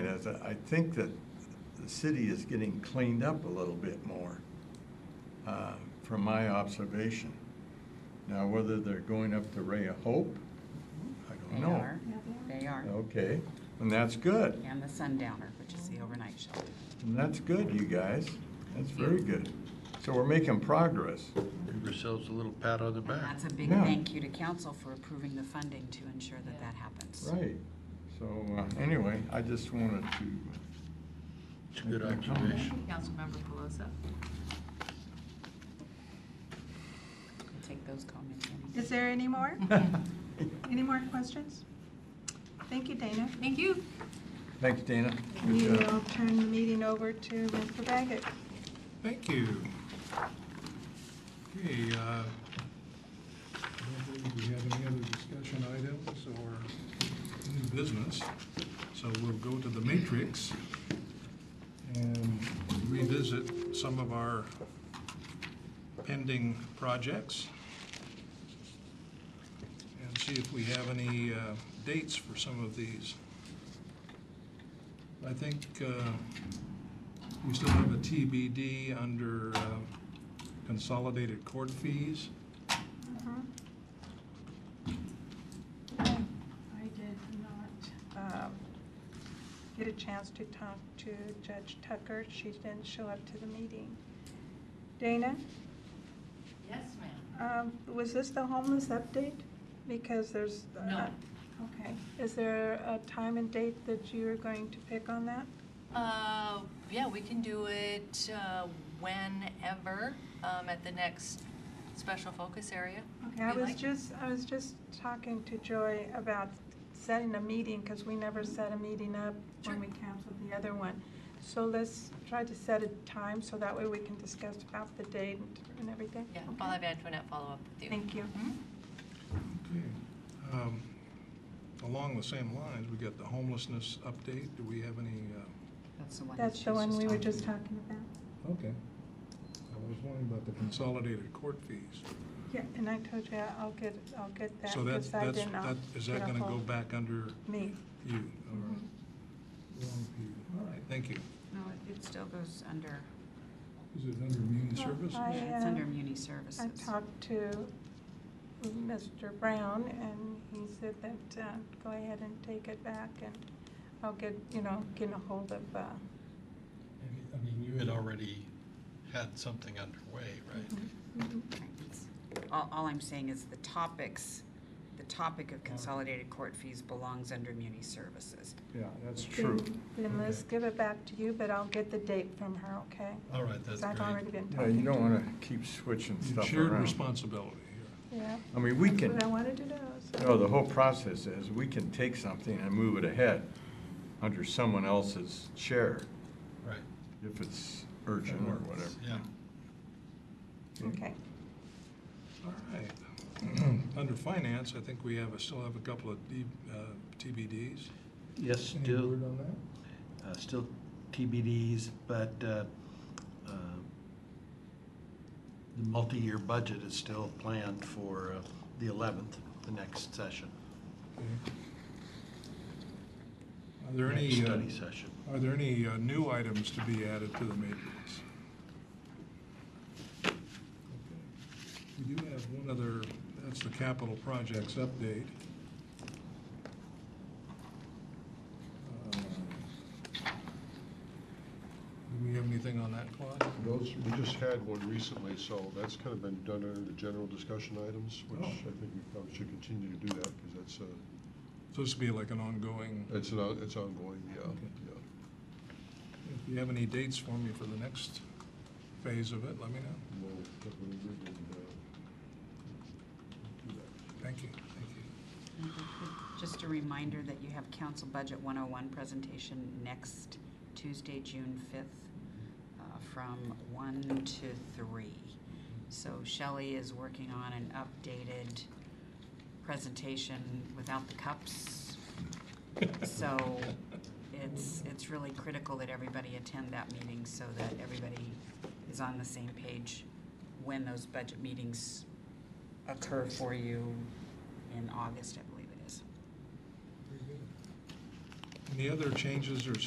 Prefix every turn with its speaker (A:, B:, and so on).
A: because I I think that the city is getting cleaned up a little bit more, uh, from my observation. Now, whether they're going up the Ray of Hope, I don't
B: They
A: know.
B: are, they are.
A: Okay, and that's good.
B: And the Sundowner, which is the overnight shelter.
A: And that's good, you guys. That's very good. So we're making progress.
C: Give yourselves a little pat on the
B: And
C: back.
B: that's a big
A: Yeah.
B: thank you to council for approving the funding to ensure that that happens.
A: Right. So uh, anyway, I just wanted to,
C: It's a good observation.
D: Councilmember Pelosi.
B: We'll Take those comments. in.
E: Is there any more? Any more questions? Thank you, Dana.
D: Thank you.
A: thanks, Dana.
E: We
A: Good
E: will
A: job.
E: turn the meeting over to Mr. Baggett.
F: Thank you. Okay, uh, I don't believe we have any other discussion items or new business, so we'll go to the matrix and revisit some of our pending projects and see if we have any uh, dates for some of these. I think uh, we still have a TBD under uh, consolidated court fees.
D: Uh-huh.
E: Mhm. I did not um, get a chance to talk to Judge Tucker. She didn't show up to the meeting. Dana,
D: Yes, ma'am.
E: um, was this the homeless update? Because there's. uh,
D: No.
E: Okay. Is there a time and date that you're going to pick on that?
D: Uh, yeah, we can do it uh, whenever, um, at the next special focus area.
E: Okay, I
D: If you'd
E: was
D: like.
E: just, I was just talking to Joy about setting a meeting, because we never set a meeting up
D: Sure.
E: when we canceled the other one. So let's try to set a time, so that way we can discuss about the date and- and everything.
D: Yeah,
E: Okay.
D: I'll have Antoinette follow up with you.
E: Thank you.
D: Mhm.
F: Okay. Um, Along the same lines, we got the homelessness update. Do we have any? uh,
B: That's the one. that
E: That's
B: she
E: the
B: was
E: one we were
B: talking
E: just
B: about.
E: talking about.
F: Okay. I was wondering about the consolidated court fees.
E: Yeah, and I told you I'll get, I'll get that,
F: So that's,
E: because I
F: that's,
E: did not.
F: that, is that
E: get a
F: going to go
E: hold-
F: back under
E: Me. Mm-hmm.
F: you? All right. Wrong view. All right, thank you.
B: No, it- it still goes under,
F: Is it under immune
E: Well,
F: services?
E: I,
B: yeah, it's under
E: um,
B: muni
E: I
B: services.
E: talked to Mr. Brown, and he said that, uh, go ahead and take it back, and I'll get, you know, get a hold of, uh,
G: I mean, you had already had something underway, right?
B: All, all I'm saying is the topics, the topic of consolidated court fees belongs under muni services.
F: Yeah, that's
A: True.
E: Then let's
F: Okay.
E: give it back to you, but I'll get the date from her, okay?
G: All right, that's
E: Because I've already
G: great.
E: been
A: Yeah, you
E: talking.
A: don't want to keep switching stuff
F: Shared
A: around.
F: responsibility here.
E: Yeah.
A: I mean, we
E: That's
A: can,
E: what I wanted to know. so-
A: no, Oh, the whole process is, we can take something and move it ahead under someone else's chair
G: Right.
A: if it's urgent or whatever.
G: Yeah.
E: Okay.
F: All right. Under finance, I think we have, a- still have a couple of D- uh, TBDs.
C: Yes,
F: Any
C: still,
F: word on that?
C: uh, still TBDs, but uh, uh, the multi-year budget is still planned for uh, the 11th, the next session,
F: Are there
C: next
F: any,
C: study
F: uh,
C: session.
F: are there any uh, new items to be added to the matrix? Okay. We do have one other, that's the capital projects update. Uh, Do we have anything on that, Claude?
H: Those, we just had one recently, so that's kind of been done under the general discussion items, which
F: Oh.
H: I think we probably should continue to do that, because that's, uh,
F: So this would be like an ongoing?
H: it's an, on- it's ongoing, yeah,
F: Okay.
H: yeah.
F: If you have any dates for me for the next phase of it, let me know.
H: No, but we- we didn't, uh, do that.
F: Thank you, thank
B: Just a reminder that you have Council Budget 101 presentation next Tuesday, June 5th, uh, from 1 to 3. So Shelley is working on an updated presentation without the cups. So it's, it's really critical that everybody attend that meeting so that everybody is on the same page when those budget meetings occur for you in August, I believe it is.
F: you. Any other changes or